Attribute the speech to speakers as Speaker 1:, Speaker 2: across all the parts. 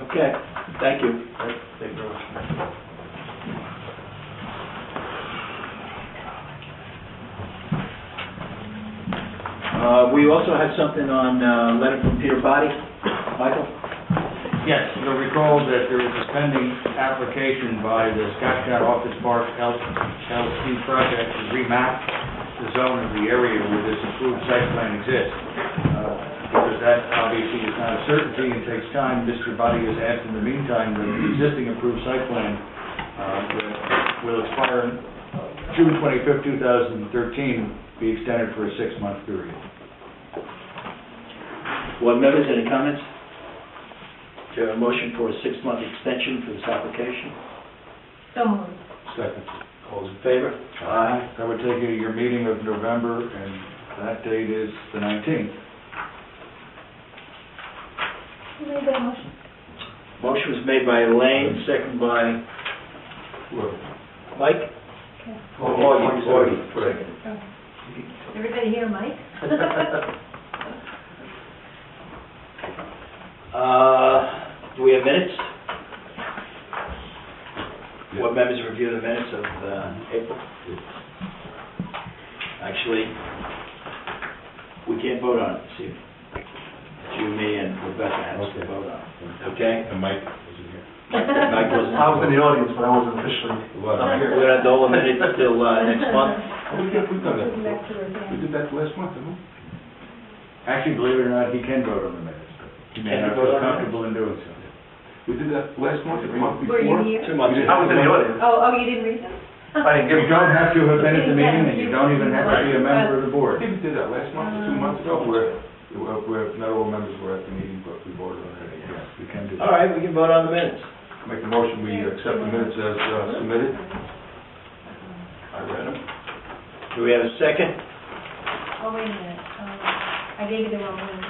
Speaker 1: Okay, thank you.
Speaker 2: Thank you very much.
Speaker 1: Uh, we also have something on, uh, letter from Peter Body. Michael?
Speaker 3: Yes, you'll recall that there is a pending application by the Scottsdale Office Park L- LLC project to remap the zone of the area where this approved site plan exists. Uh, Because that obviously is not a certainty and takes time, Mr. Buddy has asked in the meantime that the existing approved site plan uh, will- will expire in June 25th, 2013, be extended for a six-month period.
Speaker 1: Board members, any comments? Is there a motion for a six-month extension for this application?
Speaker 4: So moved.
Speaker 3: Second.
Speaker 1: All those in favor?
Speaker 3: Aye. That would take you to your meeting of November, and that date is the 19th.
Speaker 4: Who made that motion?
Speaker 1: Motion was made by Elaine, second by Mike?
Speaker 2: Oh, oh,
Speaker 1: Augie,
Speaker 2: Augie,
Speaker 1: Augie,
Speaker 2: right.
Speaker 1: second.
Speaker 4: Everybody hear Mike?
Speaker 1: Uh, do we have minutes?
Speaker 3: Yeah.
Speaker 1: Board members review the minutes of, uh, April? Actually, we can't vote on it this evening. It's You, me, and Rebecca has to
Speaker 3: Okay.
Speaker 1: vote on it, okay?
Speaker 3: And Mike isn't here.
Speaker 1: Mike wasn't-
Speaker 2: I was in the audience, but I wasn't officially.
Speaker 3: Well,
Speaker 1: We're gonna dole a minute till, uh, next month.
Speaker 2: We did, we've done that
Speaker 4: Going back to her
Speaker 2: We
Speaker 4: again.
Speaker 2: did that last month, didn't we?
Speaker 3: Actually, believe it or not, he can vote on the minutes, but he may
Speaker 1: Can he
Speaker 3: not
Speaker 1: vote
Speaker 3: feel
Speaker 1: on the
Speaker 3: comfortable in doing so.
Speaker 2: We did that last month, or the month
Speaker 4: Were
Speaker 2: before.
Speaker 4: you here?
Speaker 1: Two months.
Speaker 2: We did- I was in the audience.
Speaker 4: Oh, oh, you didn't read them?
Speaker 2: I didn't give
Speaker 3: You
Speaker 2: a
Speaker 3: don't have to have been at the meeting, and you don't even have to be a member of the
Speaker 2: I
Speaker 3: board.
Speaker 2: think we did that last month, or two months ago, where, where- where not all members were at the meeting, but we voted on it
Speaker 3: Yes,
Speaker 2: again.
Speaker 3: we can do
Speaker 1: All
Speaker 3: that.
Speaker 1: right, we can vote on the minutes.
Speaker 2: Make a motion, we accept the minutes as uh, submitted.
Speaker 1: I read them. Do we have a second?
Speaker 4: Oh, wait a minute. Um, I gave you the wrong one.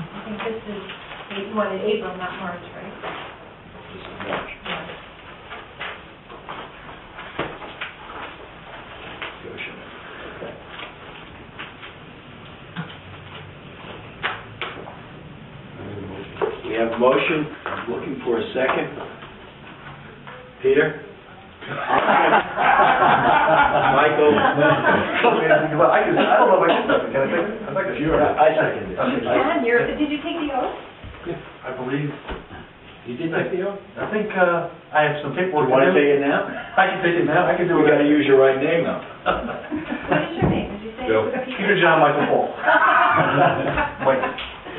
Speaker 4: I think this is, you wanted April, not March, right?
Speaker 1: This is March.
Speaker 4: Yeah.
Speaker 1: Goshen. Okay. We have a motion, I'm looking for a second. Peter? Michael?
Speaker 2: Well, I can, I don't know if I can, second. can I second? I'd like
Speaker 1: I
Speaker 2: to.
Speaker 1: second it. I-
Speaker 4: John, you're, did you take the oath?
Speaker 5: I believe,
Speaker 1: You did take the oath?
Speaker 5: I think, uh, I have some
Speaker 1: Do you
Speaker 5: paperwork.
Speaker 1: want to
Speaker 5: to do.
Speaker 1: take it now?
Speaker 5: I can take it now, I can do
Speaker 1: We gotta
Speaker 5: it.
Speaker 1: use your right name though.
Speaker 4: What is your name? Did you say?
Speaker 2: Joe.
Speaker 5: Peter John Michael Paul. Mike,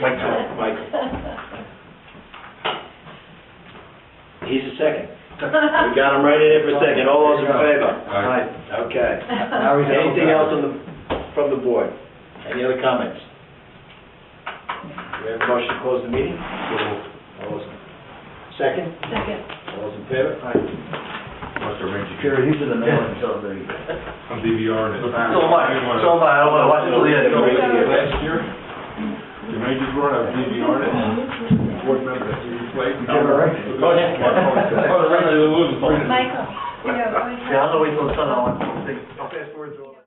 Speaker 5: Mike John.
Speaker 1: Michael. He's a second. We
Speaker 4: Michael.
Speaker 1: got him right in there for a second, all those in favor?
Speaker 2: All right.
Speaker 1: Okay.
Speaker 3: Now we have-
Speaker 1: Anything else on the, from the board? Any other comments? We have a motion to close the meeting? All those, second,
Speaker 4: Second.
Speaker 1: all those in favor?
Speaker 2: Must arrange it.
Speaker 1: Jerry, he's in the middle, so there you go.
Speaker 2: I'm DVRing
Speaker 3: So
Speaker 2: it.
Speaker 3: am
Speaker 5: I. So am I. I don't wanna watch it till the end.
Speaker 2: uh, Last year, the majors were, I was DVRing it, board member, he replaced.
Speaker 3: Yeah, right.
Speaker 2: Oh, the regular losers.
Speaker 4: Michael, you know, always.
Speaker 5: Yeah, I'll wait till the sun, I'll, I'll fast forward through all that.